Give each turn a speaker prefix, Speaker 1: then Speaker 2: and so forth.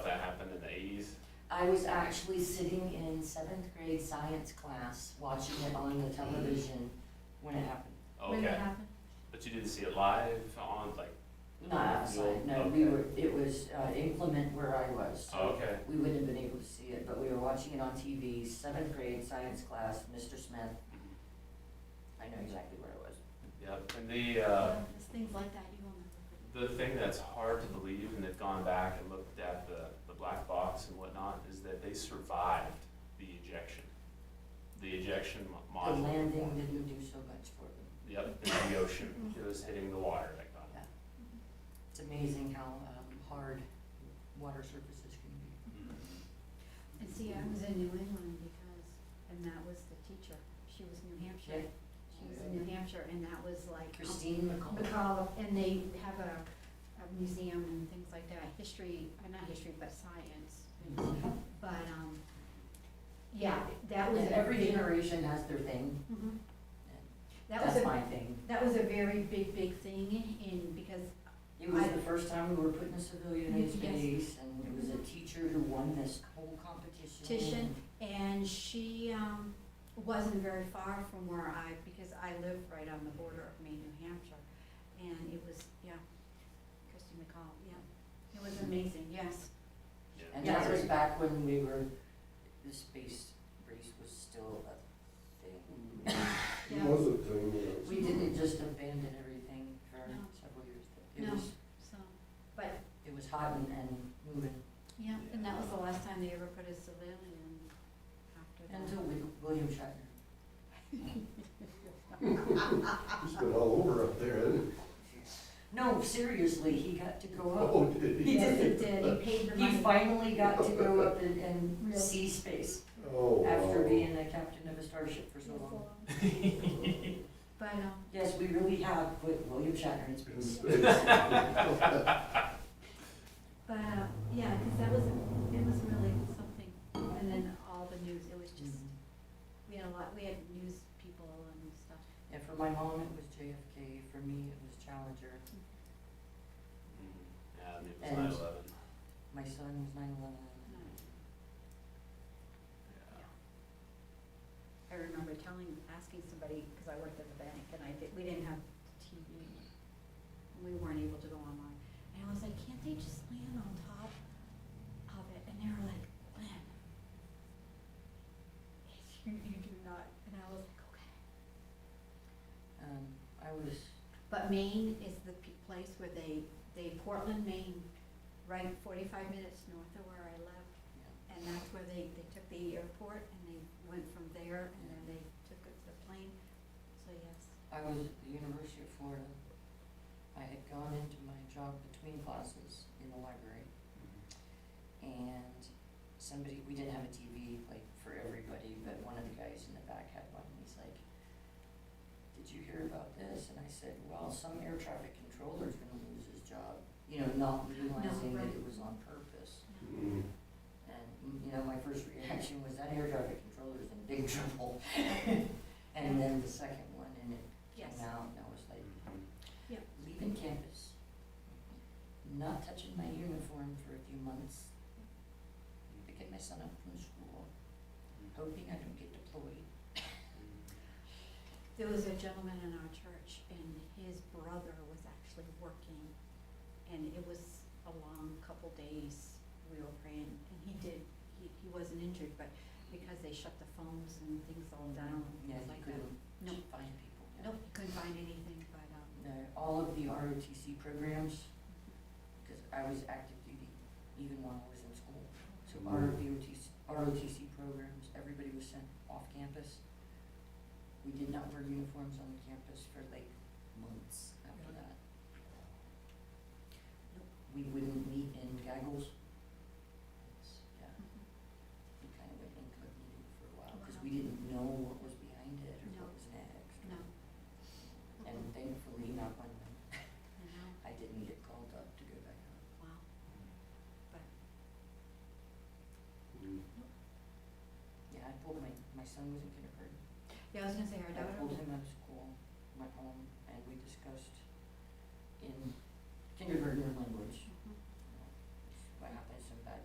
Speaker 1: I was actually sitting in seventh grade science class, watching it on the television when it happened.
Speaker 2: When that
Speaker 3: Okay,
Speaker 2: happened?
Speaker 3: but you didn't see it live on, like,
Speaker 1: Not outside, no, we were, it was uh, implement where I was. so
Speaker 3: okay,
Speaker 1: We wouldn't have been able to see it, but we were watching it on TV, seventh grade science class, Mr. Smith. I know exactly where it was.
Speaker 3: yep. And the, uh,
Speaker 2: It's things like that you will never
Speaker 3: the thing that's hard to believe, and they've gone back and looked at the, the black box and whatnot, is that they survived the ejection. The ejection mo-
Speaker 1: The
Speaker 3: module.
Speaker 1: landing didn't do so much for them.
Speaker 3: Yep, in the ocean, it was hitting the water that got
Speaker 1: It's amazing how um, hard water surfaces can be.
Speaker 3: it.
Speaker 4: And see, I was in New England because, and that was the teacher, she was New Hampshire. She was in New Hampshire, and that was like.
Speaker 1: Christine McCall.
Speaker 4: McCall, and they have a, a museum and things like that, history, uh, not history, but science. But, um, yeah, that was.
Speaker 1: And
Speaker 4: a
Speaker 1: every
Speaker 4: big-
Speaker 1: generation has their thing.
Speaker 4: Mhm. That was
Speaker 1: That's
Speaker 4: a,
Speaker 1: my thing.
Speaker 4: that was a very big, big thing, and because,
Speaker 1: It was
Speaker 4: I-
Speaker 1: the first time we were put in a civilian in
Speaker 4: Yes.
Speaker 1: space and it was a teacher who won this whole competition.
Speaker 4: Competition. and she, um, wasn't very far from where I, because I live right on the border of Maine, New Hampshire. And it was, yeah, Christy McCall, yeah, it was amazing, yes.
Speaker 3: Mm-hmm. Yeah.
Speaker 1: And
Speaker 4: Yeah.
Speaker 1: that was back when we were, the space race was still a thing.
Speaker 4: Yeah.
Speaker 5: Was a thing, you know.
Speaker 1: We didn't just abandon everything for
Speaker 4: No.
Speaker 1: several years. It
Speaker 4: No.
Speaker 1: was,
Speaker 4: So, but,
Speaker 1: it was hot and, and moving.
Speaker 4: yeah, and that was the last time they ever put a civilian in after that.
Speaker 1: Until we, William Shatner.
Speaker 5: He's been all over up there, hasn't he?
Speaker 1: No, seriously, he got to go
Speaker 5: Oh,
Speaker 1: up.
Speaker 5: did he?
Speaker 4: Yes, it did, he paid the
Speaker 1: He
Speaker 4: money.
Speaker 1: finally got to go up and, and
Speaker 4: Really?
Speaker 1: see space
Speaker 5: Oh,
Speaker 1: after
Speaker 5: wow.
Speaker 1: being a captain of a starship for so long.
Speaker 4: But, um,
Speaker 1: Yes, we really have put William Shatner in
Speaker 5: In
Speaker 1: space.
Speaker 5: space.
Speaker 4: but, uh, yeah, cause that was, it was really something, and then all the news, it was just, we had a lot, we had news people and stuff.
Speaker 1: And for my mom, it was JFK, for me, it was Challenger,
Speaker 3: Yeah, I mean, it was
Speaker 1: And-
Speaker 3: nine eleven.
Speaker 1: my son was nine eleven.
Speaker 4: I remember telling, asking somebody, cause I worked at the bank and I did, we didn't have TV. We weren't able to go online, and I was like, can't they just land on top of it? And they were like, Lynn, you, you do not, and I was like, okay.
Speaker 1: Um, I was,
Speaker 4: But Maine is the p- place where they, they, Portland, Maine, right forty-five minutes north of where I live, And that's where they, they took the airport and they went from there and then they took it to the plane, so yes.
Speaker 1: I was at the University of Florida. I had gone into my job between classes in the library. and somebody, we didn't have a TV like for everybody, but one of the guys in the back had one, and he's like, did you hear about this? And I said, well, some air traffic controller's gonna lose his job, you know, not realizing that it
Speaker 4: right.
Speaker 1: was on purpose.
Speaker 5: Mm.
Speaker 1: And, mm, you know, my first reaction was that air traffic controller's in big trouble. And then the second one, and it
Speaker 4: Yes.
Speaker 1: came out, and I was like,
Speaker 4: Yeah.
Speaker 1: leaving campus, not touching my uniform for a few months, picking my son up from school, hoping I don't get deployed.
Speaker 3: Mm-hmm.
Speaker 4: There was a gentleman in our church and his brother was actually working and it was a long couple days we were praying and he did, he, he wasn't injured, but because they shut the phones and things all down,
Speaker 1: Yeah,
Speaker 4: things
Speaker 1: you
Speaker 4: like that.
Speaker 1: couldn't
Speaker 4: No,
Speaker 1: find people. yeah.
Speaker 4: nope, he couldn't find anything, but, um,
Speaker 1: No, all of the ROTC programs, because I was active duty even when I was in school. So
Speaker 5: Mm.
Speaker 1: ROTC, ROTC programs, everybody was sent off campus. We did not wear uniforms on campus for like months after that. We wouldn't meet in gaggles. It's- Yeah. we kind of went incognito for a while, because we didn't know what was behind it or what
Speaker 4: No.
Speaker 1: was next.
Speaker 4: no,
Speaker 1: And thankfully, not when
Speaker 4: I know.
Speaker 1: I didn't get called up to go back up.
Speaker 4: Wow.
Speaker 5: Mm.
Speaker 1: Yeah, I pulled my, my son was in kindergarten.
Speaker 4: Yeah, I was gonna say our
Speaker 1: I
Speaker 4: daughter.
Speaker 1: pulled him out of school, went home, and we discussed in kindergarten language,